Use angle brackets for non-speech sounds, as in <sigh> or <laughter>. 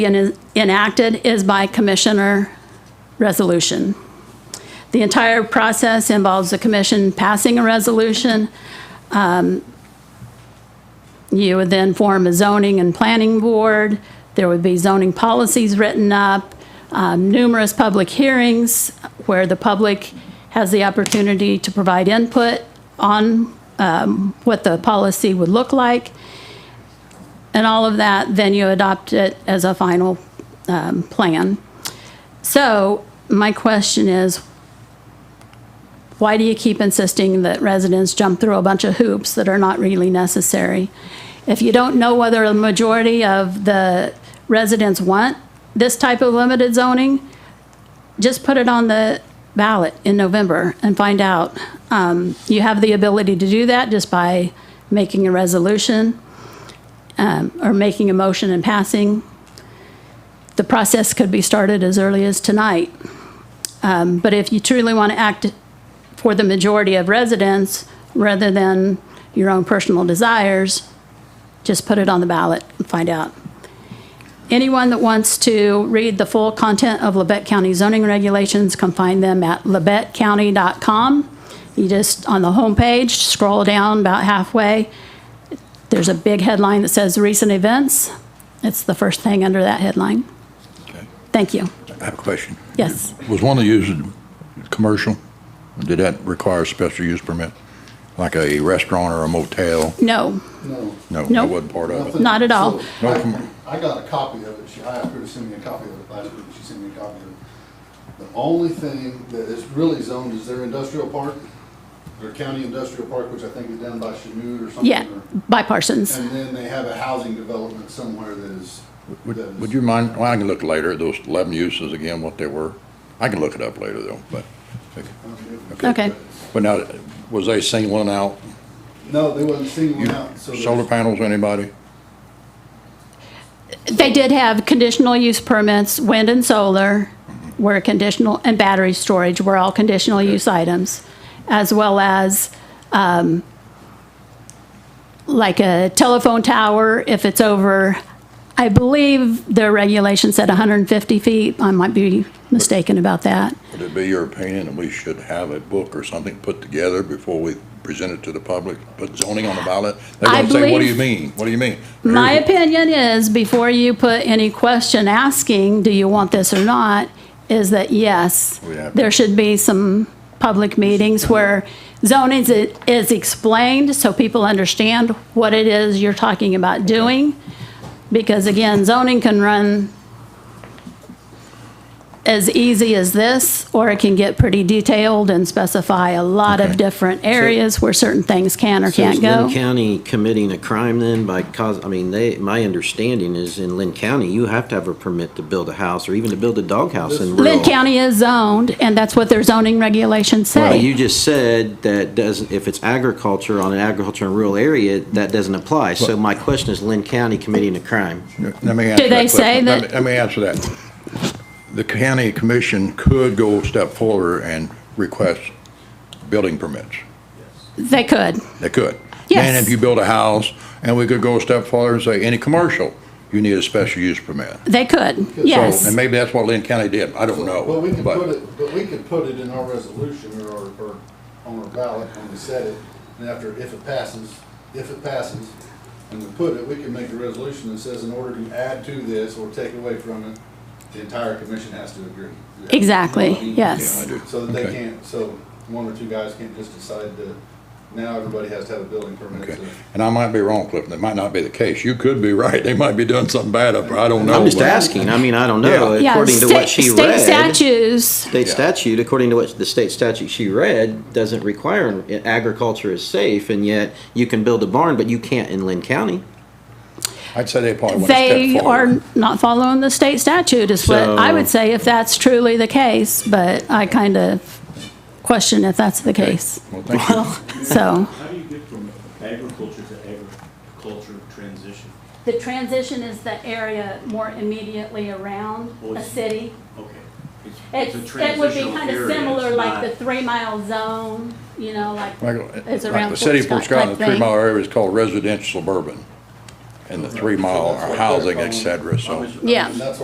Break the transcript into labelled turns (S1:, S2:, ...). S1: en- enacted is by commissioner resolution. The entire process involves the commission passing a resolution. Um, You would then form a zoning and planning board. There would be zoning policies written up, um, numerous public hearings where the public has the opportunity to provide input on um, what the policy would look like and all of that, then you adopt it as a final um, plan. So my question is, why do you keep insisting that residents jump through a bunch of hoops that are not really necessary? If you don't know whether a majority of the residents want this type of limited zoning, just put it on the ballot in November and find out. Um, You have the ability to do that just by making a resolution or making a motion and passing, the process could be started as early as tonight. Um, But if you truly want to act for the majority of residents, rather than your own personal desires, just put it on the ballot and find out. Anyone that wants to read the full content of Labette County zoning regulations can find them at labettecounty.com. You just, on the homepage, scroll down about halfway, there's a big headline that says recent events. It's the first thing under that headline.
S2: Okay.
S1: Thank you.
S2: I have a question.
S1: Yes.
S2: Was one of these commercial? Did that require a special use permit? Like a restaurant or a motel?
S1: No,
S3: No.
S2: No, that
S1: Nope.
S2: wasn't part of
S3: nothing.
S2: it.
S1: Not at all.
S3: So,
S2: No,
S3: I-
S2: come on.
S3: I got a copy of it. She, I asked her to send me a copy of it last week. She sent me a copy of it. The only thing that is really zoned is their industrial park, their county industrial park, which I think is down by Chanute or something.
S1: yeah,
S3: or-
S1: by Parsons.
S3: And then they have a housing development somewhere that is. that
S2: Would
S3: is-
S2: would you mind, well, I can look later at those 11 uses again, what they were. I can look it up later though, but,
S3: I don't know.
S1: Okay.
S2: but now, was they singling out
S3: No, they wasn't singling out, so. there's-
S2: solar panels, anybody?
S1: They did have conditional use permits, wind and solar were conditional, and battery storage were all conditional use items, as well as um, like a telephone tower, if it's over, I believe the regulation said 150 feet. I might be mistaken about that.
S2: Would it be your opinion that we should have a book or something put together before we present it to the public? Put zoning on the ballot? They're
S1: I
S2: gonna say, what do
S1: believe-
S2: you mean? What do you mean?
S1: My
S2: Here's-
S1: opinion is, before you put any question asking, do you want this or not, is that yes,
S2: We have-
S1: there should be some public meetings where zoning is- is explained, so people understand what it is you're talking about doing. Because again, zoning can run as easy as this, or it can get pretty detailed and specify a lot of
S2: Okay.
S1: different areas where certain things can or
S4: So is
S1: can't go.
S4: Lynn County committing a crime then by cause, I mean, they, my understanding is in Lynn County, you have to have a permit to build a house or even to build a doghouse in rural.
S1: Lynn County is zoned, and that's what their zoning regulations
S4: But you
S1: say.
S4: just said that doesn't, if it's agriculture on an agriculture in rural area, that doesn't apply. So my question is Lynn County committing a crime?
S2: Let me answer
S1: Do
S2: that
S1: they say
S2: question. Let
S1: that-
S2: me- Let me answer that. The county commission could go a step forward and request building permits.
S1: They could.
S2: They could. And
S1: Yes.
S2: if you build a house, and we could go a step farther and say, any commercial, you need a special use permit.
S1: They could,
S3: So,
S2: So,
S1: yes.
S2: And maybe that's what Lynn County did. I don't know.
S3: Well, we can
S2: but-
S3: put it, but we can put it in our resolution or, our- or on our ballot when we set it, and after, if it passes, if it passes, and we put it, we can make a resolution that says in order to add to this or take away from it, the entire commission has to agree. You have-
S1: Exactly,
S3: you know what I mean?
S1: yes.
S2: Yeah, I do.
S3: So that they
S2: Okay.
S3: can't, so one or two guys can't just decide that now everybody has to have a building permit
S2: Okay.
S3: to.
S2: And I might be wrong, Cliff. That might not be the case. You could be <laughs> right. They might be doing something bad up there. I don't know.
S4: I'm just
S2: but-
S4: asking. I mean, I don't know.
S1: Yeah,
S4: According to
S1: state-
S4: what she read.
S1: State statutes,
S4: State
S2: Yeah.
S4: statute, according to what the state statute she read, doesn't require agriculture is safe, and yet you can build a barn, but you can't in Lynn County.
S2: I'd say they probably went a
S1: they
S2: step forward.
S1: are not following the state statute is what I would
S4: So-
S1: say if that's truly the case, but I kind of question if that's the case.
S2: Well, thank you.
S1: So.
S5: How do you get from agriculture to agriculture transition?
S1: The transition is the area more immediately around a city.
S5: Okay.
S1: It's,
S5: It's- it's a
S1: it would be
S5: transitional
S1: kind of
S5: area,
S1: similar
S5: it's
S1: like
S5: not-
S1: the three-mile zone, you know, like,
S2: Like,
S1: it's
S2: uh, like
S1: around
S2: the city of
S1: Fort
S2: Fort
S1: Scott
S2: Scott,
S1: type
S2: the three
S1: thing.
S2: mile area is called residential suburban. and the three mile
S3: So that's what they're
S2: housing,
S3: calling-
S2: et cetera, so.
S3: I was- I mean,
S1: Yeah.
S3: That's